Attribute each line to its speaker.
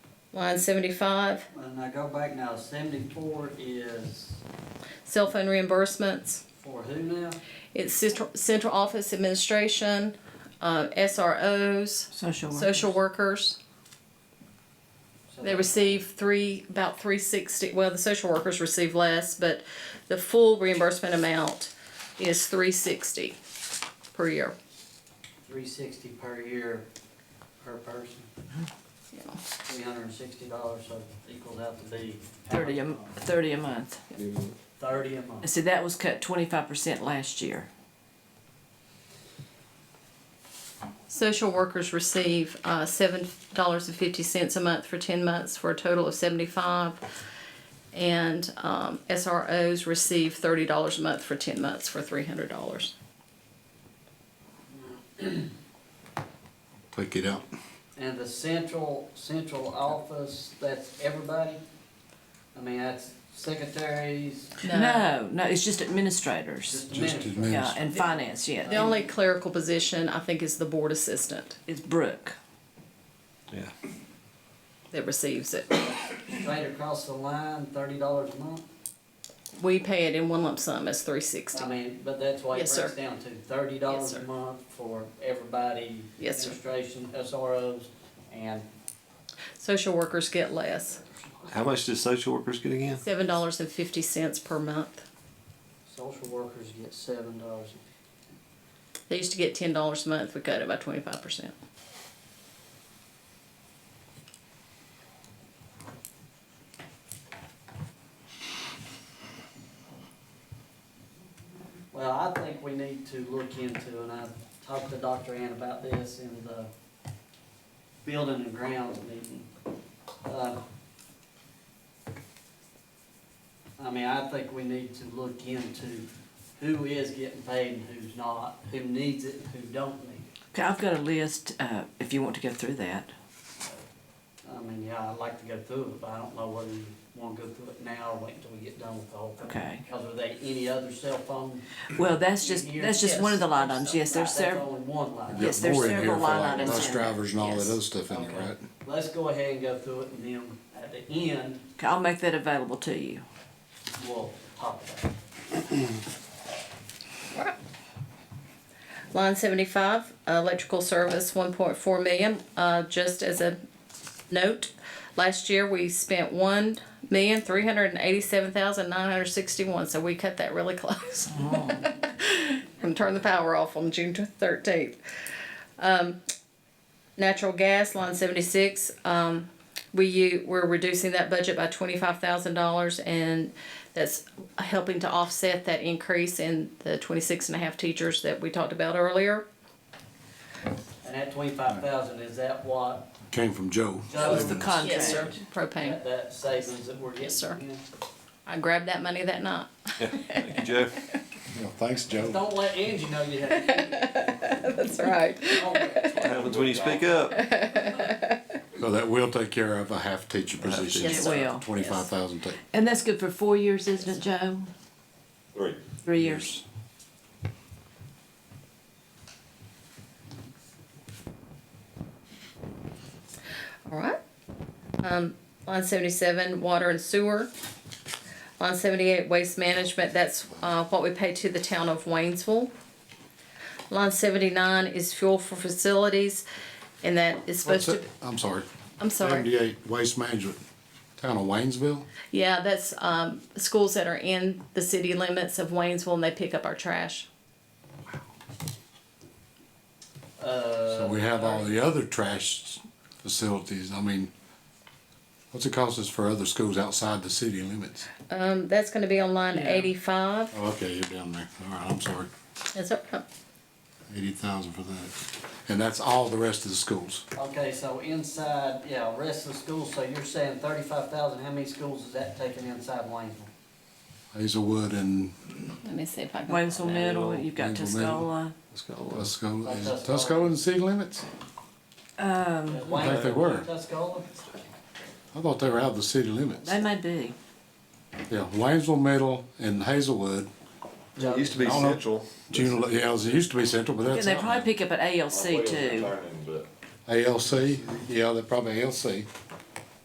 Speaker 1: Line seventy-five,
Speaker 2: When I go back now, seventy-four is
Speaker 1: cell phone reimbursements.
Speaker 2: for who now?
Speaker 1: It's central, central office administration, uh, SROs,
Speaker 3: Social workers.
Speaker 1: social workers.
Speaker 2: So
Speaker 1: They receive three, about three sixty, well, the social workers receive less, but the full reimbursement amount is three sixty per year.
Speaker 2: Three sixty per year, per person,
Speaker 1: Yeah.
Speaker 2: three hundred and sixty dollars, so it equals out to be. how
Speaker 3: Thirty a,
Speaker 2: much?
Speaker 3: thirty a month.
Speaker 2: Thirty a month.
Speaker 3: See, that was cut twenty-five percent last year.
Speaker 1: Social workers receive uh, seven dollars and fifty cents a month for ten months for a total of seventy-five. And um, SROs receive thirty dollars a month for ten months for three hundred dollars.
Speaker 4: Take it out.
Speaker 2: And the central, central office, that's everybody? I mean, that's secretaries,
Speaker 3: No, no, it's just administrators.
Speaker 2: just
Speaker 4: Just
Speaker 2: administrators.
Speaker 4: admin.
Speaker 3: Yeah, and finance,
Speaker 1: The
Speaker 3: yeah.
Speaker 1: only clerical position I think is the board assistant
Speaker 3: It's Brooke.
Speaker 4: Yeah.
Speaker 1: that receives it.
Speaker 2: Straight across the line, thirty dollars a month?
Speaker 1: We pay it in one lump sum as three sixty.
Speaker 2: I mean, but that's why it
Speaker 1: Yes, sir.
Speaker 2: breaks down to thirty
Speaker 1: Yes,
Speaker 2: dollars a
Speaker 1: sir.
Speaker 2: month for everybody.
Speaker 1: Yes, sir.
Speaker 2: Administration, SROs, and
Speaker 1: Social workers get less,
Speaker 5: How much do social workers get again?
Speaker 1: seven dollars and fifty cents per month.
Speaker 2: social workers get seven dollars.
Speaker 1: They used to get ten dollars a month. We cut it by twenty-five percent.
Speaker 2: Well, I think we need to look into, and I talked to Dr. Ann about this in the building and grounds meeting. Uh, I mean, I think we need to look into who is getting paid and who's not, who needs it and who don't need it.
Speaker 3: Okay, I've got a list, uh, if you want to go through that.
Speaker 2: I mean, yeah, I'd like to go through it, but I don't know whether you wanna go through it now or wait until we get done with the whole thing.
Speaker 3: Okay.
Speaker 2: Cause are they any other cell phone?
Speaker 3: Well, that's just, that's just one of the line items, yes, there's
Speaker 2: Right, That's
Speaker 3: several.
Speaker 2: only one line.
Speaker 3: Yes, there's
Speaker 4: More in
Speaker 3: several
Speaker 4: here for
Speaker 3: line
Speaker 4: like
Speaker 3: items
Speaker 4: Bus
Speaker 3: in there.
Speaker 4: drivers and all that
Speaker 3: Yes.
Speaker 4: other stuff in there,
Speaker 2: Okay.
Speaker 4: right?
Speaker 2: Let's go ahead and go through it, and then at the end,
Speaker 3: Okay, I'll make that available to you.
Speaker 2: we'll talk about it.
Speaker 1: Line seventy-five, uh, electrical service, one point four million, uh, just as a note. Last year, we spent one million, three hundred and eighty-seven thousand, nine hundred and sixty-one, so we cut that really close. And turned the power off on June thirteenth. Um, Natural gas, line seventy-six, um, we u- we're reducing that budget by twenty-five thousand dollars and that's helping to offset that increase in the twenty-six and a half teachers that we talked about earlier.
Speaker 2: And that twenty-five thousand, is that what,
Speaker 4: Came from Joe.
Speaker 2: That was the
Speaker 3: con- Yes, sir.
Speaker 1: Propane.
Speaker 2: that, that savings that we're getting?
Speaker 1: Yes, sir.
Speaker 2: Yeah.
Speaker 1: I grabbed that money that night.
Speaker 5: Thank you, Joe.
Speaker 4: Yeah, Thanks, Joe.
Speaker 2: Don't let Angie know you have.
Speaker 1: That's right.
Speaker 5: What happens when you speak up?
Speaker 4: So that will take care of a half teacher position.
Speaker 3: Yes, it will.
Speaker 4: Twenty-five thousand.
Speaker 3: And that's good for four years, isn't it, Joe?
Speaker 5: Three.
Speaker 3: Three years.
Speaker 1: All right. Um, line seventy-seven, water and sewer. Line seventy-eight, waste management, that's, uh, what we pay to the town of Waynesville. Line seventy-nine is fuel for facilities, and that is supposed to,
Speaker 4: I'm sorry.
Speaker 1: I'm sorry.
Speaker 4: Seventy-eight, waste management, town of Waynesville.
Speaker 1: Yeah, that's, um, schools that are in the city limits of Waynesville and they pick up our trash.
Speaker 4: So
Speaker 2: Uh,
Speaker 4: we have all the other trash facilities. I mean, what's it cost us for other schools outside the city limits?
Speaker 1: Um, that's gonna be on line
Speaker 3: Yeah.
Speaker 1: eighty-five.
Speaker 4: Oh, Okay, you're down there. All right, I'm sorry.
Speaker 1: That's up.
Speaker 4: Eighty thousand for that. And that's all the rest of the schools.
Speaker 2: okay, so inside, yeah, rest of the schools, so you're saying thirty-five thousand, how many schools is that taking inside Waynesville?
Speaker 4: Hazelwood and
Speaker 1: Let me see if I can.
Speaker 3: Waynesville Middle, you've got
Speaker 4: Waynesville Middle.
Speaker 3: Tuscola.
Speaker 5: Let's go.
Speaker 4: Tuscola. Is
Speaker 2: Tuscola.
Speaker 4: Tuscola in the city limits?
Speaker 3: Um,
Speaker 2: I
Speaker 4: think they were.
Speaker 2: Tuscola?
Speaker 4: I thought they were out of the city limits.
Speaker 3: they may be.
Speaker 4: Yeah, Waynesville Middle and Hazelwood.
Speaker 5: It used to be
Speaker 4: I don't know.
Speaker 5: central.
Speaker 4: June, yeah, it was- it used to be Central, but
Speaker 3: And
Speaker 4: that's
Speaker 3: they probably
Speaker 4: out.
Speaker 3: pick up at ALC too.
Speaker 4: ALC, yeah, they're probably ALC.